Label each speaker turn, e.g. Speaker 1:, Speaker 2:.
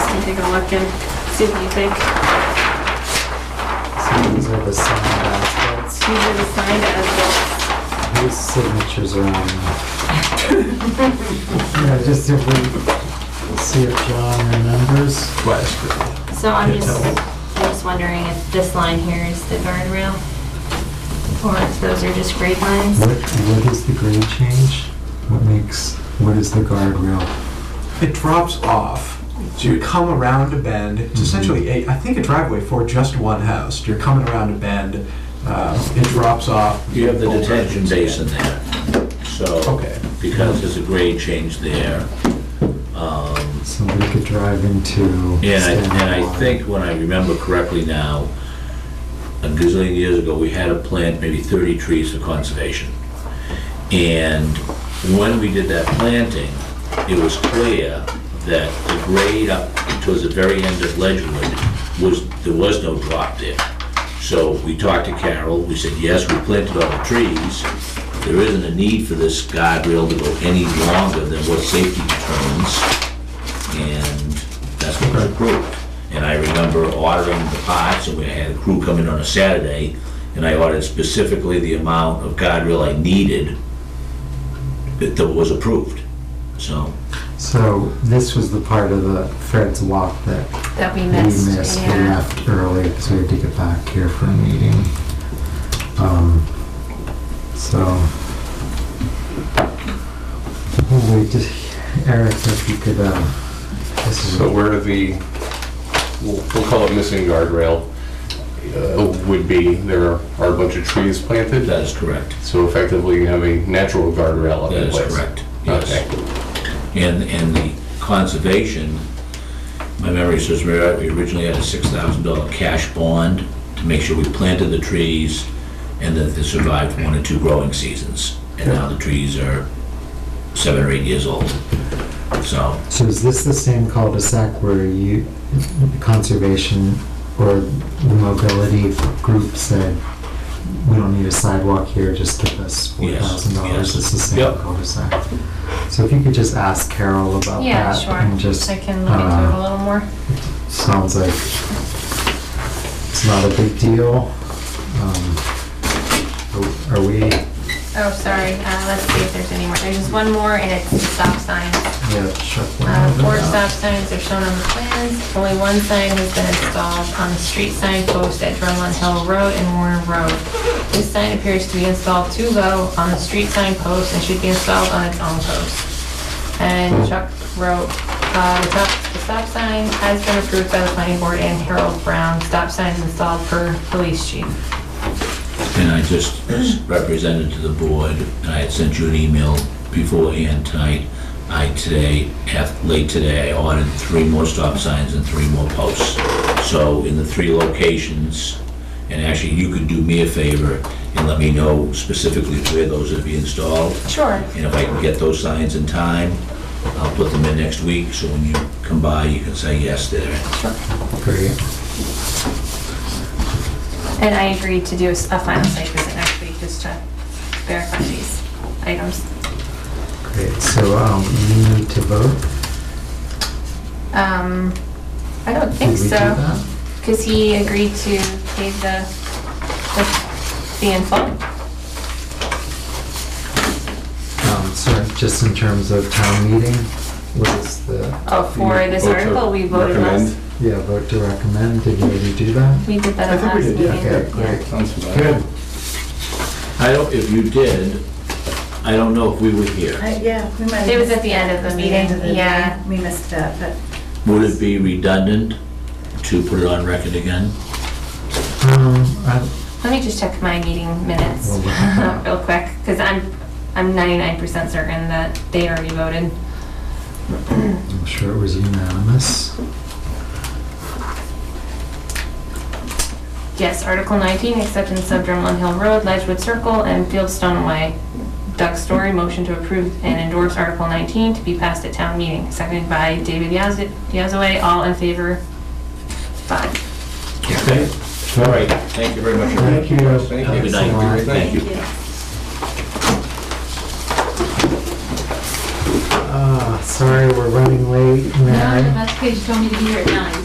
Speaker 1: and take a look and see what you think.
Speaker 2: So these are the signed assets.
Speaker 1: These are the signed as
Speaker 2: Whose signatures are on them? Yeah, just if we, see if John remembers.
Speaker 3: West.
Speaker 4: So I'm
Speaker 3: Can't
Speaker 4: just,
Speaker 3: tell.
Speaker 4: I'm just wondering if this line here is the guardrail? Or if those are just grade lines?
Speaker 2: What, what is the grade change? What makes, what is the guardrail?
Speaker 3: It drops off. So you come around a bend. It's essentially a, I think a driveway for just one house. You're coming around a bend. Uh, it drops off.
Speaker 5: You have the detention basin there, so,
Speaker 3: Okay.
Speaker 5: because there's a grade change there.
Speaker 2: So we could drive into.
Speaker 5: And I, and I
Speaker 2: Stanmore.
Speaker 5: think, when I remember correctly now, a gazillion years ago, we had to plant maybe 30 trees for conservation. And when we did that planting, it was clear that the grade up towards the very end of Ledgewood was, there was no drop there. So we talked to Carol, we said, yes, we planted all the trees. There isn't a need for this guardrail to go any longer than what safety determines and that's what was approved. And I remember ordering the pots, and we had a crew come in on a Saturday, and I ordered specifically the amount of guardrail I needed that that was approved. So,
Speaker 2: So this was the part of the Fred's walk that
Speaker 1: well. That we
Speaker 2: we missed, we left early because we had to get back here for a meeting. Um, So. We'll wait to- Eric, if you could, uh, this is,
Speaker 6: So where the, we'll we'll call it missing guardrail, uh, would be, there are a bunch of trees planted,
Speaker 5: that is correct.
Speaker 6: so effectively you have a natural guardrail up
Speaker 5: That
Speaker 6: in
Speaker 5: is
Speaker 6: place.
Speaker 5: correct,
Speaker 6: Okay.
Speaker 5: yes. And, and the conservation, my memory says we originally had a six thousand dollar cash bond to make sure we planted the trees and that they survived one or two growing seasons. And now the trees are seven or eight years old. So,
Speaker 2: so is this the same cul-de-sac where you, conservation or the mobility group said, we don't need a sidewalk here, just give us four
Speaker 5: Yes,
Speaker 2: thousand dollars,
Speaker 5: yes.
Speaker 2: it's the same
Speaker 5: Yep.
Speaker 2: cul-de-sac? So if you could just ask Carol about that.
Speaker 1: Yeah, sure.
Speaker 2: And just.
Speaker 1: I can look into it
Speaker 2: uh,
Speaker 1: a little more.
Speaker 2: Sounds like it's not a big deal. Um, Are are we,
Speaker 1: Oh, sorry, uh, let's see if there's any more. There's just one more and it's stop signs.
Speaker 2: yeah, shut
Speaker 1: Uh,
Speaker 2: one
Speaker 1: Four
Speaker 2: down.
Speaker 1: stop signs are shown on the plans. Only one sign has been installed on the street sign post at Drumlin Hill Road and Warner Road. This sign appears to be installed too low on the street sign post and should be installed on its own post. And Chuck wrote, uh, the top- the stop sign has been approved by the planning board and Harold Brown. Stop sign is installed per police chief.
Speaker 5: and I just represented to the board, and I had sent you an email beforehand tonight. I today, af- late today, I ordered three more stop signs and three more posts. So in the three locations, and actually you could do me a favor and let me know specifically where those are to be installed.
Speaker 1: Sure.
Speaker 5: And if I can get those signs in time, I'll put them in next week, so when you come by, you can say, yes, they're in.
Speaker 2: Great.
Speaker 1: And I agreed to do a s- a final site visit next week just to verify these items.
Speaker 2: Great, so um, we need to vote?
Speaker 1: Um, I don't think
Speaker 2: Did we do
Speaker 1: so,
Speaker 2: that?
Speaker 1: because he agreed to pay the, the fee in full.
Speaker 2: Um, So just in terms of town meeting, what is the,
Speaker 1: Oh, for this
Speaker 6: Vote to
Speaker 1: article, we voted
Speaker 6: recommend.
Speaker 1: last,
Speaker 2: yeah, vote to recommend, did you already do that?
Speaker 1: we did that
Speaker 3: I
Speaker 1: at
Speaker 3: think we
Speaker 1: last
Speaker 3: did,
Speaker 1: meeting.
Speaker 3: yeah.
Speaker 2: Okay,
Speaker 1: Yeah.
Speaker 2: great. Um,
Speaker 6: Good.
Speaker 5: I don't, if you did, I don't know if we were here.
Speaker 7: I- Uh, Yeah, we might.
Speaker 1: It was at the end of the
Speaker 7: The end
Speaker 1: meeting,
Speaker 7: of the
Speaker 1: yeah.
Speaker 7: meeting, we missed that, but
Speaker 5: Would it be redundant to put it on record again?
Speaker 2: Um, I-
Speaker 1: Let me just check my meeting minutes
Speaker 2: Well, what-
Speaker 1: real quick, because I'm, I'm 99% certain that they already voted.
Speaker 2: I'm sure it was unanimous.
Speaker 1: Yes, Article 19, acceptance of Drumlin Hill Road, Ledgewood Circle, and Fieldstone Way. Doug Story, motion to approve and endorse Article 19 to be passed at town meeting, seconded by David Yazd- Yazaway, all in favor? Five.
Speaker 5: Okay, all right, thank you very much.
Speaker 2: Thank you.
Speaker 5: Have a good night.
Speaker 2: Thanks a lot.
Speaker 5: Thank you.
Speaker 2: Uh,
Speaker 8: Sorry, we're running late, Mary.
Speaker 2: No, that's because you told me to be here at nine.